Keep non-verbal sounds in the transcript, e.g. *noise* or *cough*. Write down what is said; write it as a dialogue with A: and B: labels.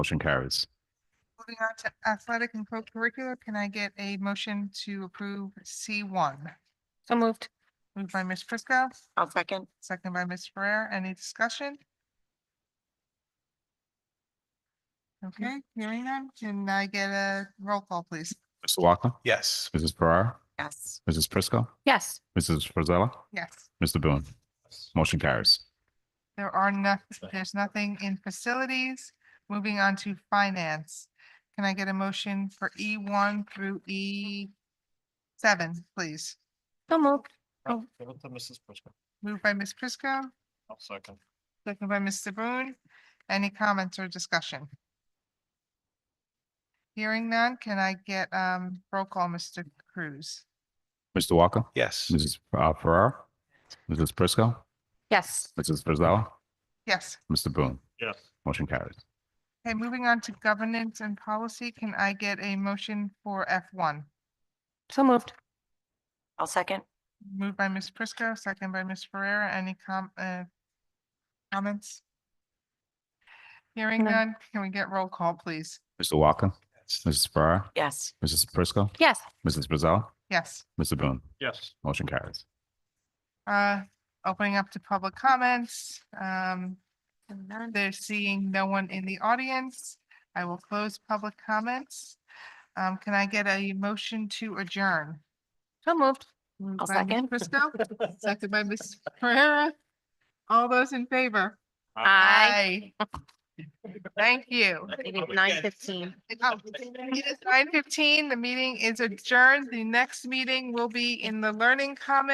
A: Motion carries.
B: Moving on to athletic and co-curricular, can I get a motion to approve C one?
C: So moved.
B: Moved by Ms. Prisco,
C: I'll second.
B: second by Ms. Ferrer. Any discussion? Okay, hearing none. Can I get a roll call, please?
A: Mr. Walker?
D: Yes.
A: Mrs. Ferrara?
C: Yes.
A: Mrs. Prisco?
C: Yes.
A: Mrs. Frizella?
B: Yes.
A: Mr. Boone? Motion carries.
B: There are no, there's nothing in facilities. Moving on to finance. Can I get a motion for E one through E seven, please?
C: So moved.
D: Give it to Mrs. Prisco.
B: Moved by Ms. Prisco,
D: I'll second.
B: second by Mr. Boone. Any comments or discussion? Hearing none, can I get um roll call, Mr. Cruz?
A: Mr. Walker?
D: Yes.
A: Mrs. uh, Ferrara? Mrs. Prisco?
C: Yes.
A: Mrs. Frizella?
B: Yes.
A: Mr. Boone?
D: Yes.
A: Motion carries.
B: Okay, moving on to governance and policy, can I get a motion for F one?
C: So moved. I'll second.
B: Moved by Ms. Prisco, second by Ms. Ferrera. Any com- uh, comments? Hearing
C: No.
B: none, can we get roll call, please?
A: Mr. Walker?
D: Yes.
A: Mrs. Ferrara?
C: Yes.
A: Mrs. Prisco?
C: Yes.
A: Mrs. Frizella?
B: Yes,
A: Mr. Boone?
D: Yes.
A: Motion carries.
B: uh, opening up to public comments. Um,
C: None.
B: they're seeing no one in the audience. I will close public comments. Um, can I get a motion to adjourn?
C: So moved.
B: Moved
C: I'll
B: by Ms.
C: second.
B: *laughs* Prisco, second by *laughs* Ms. Ferrera. All those in favor? Aye. Thank you. Oh,
C: Nine fifteen.
B: It is nine fifteen. The meeting is adjourned. The next meeting will be in the learning commons.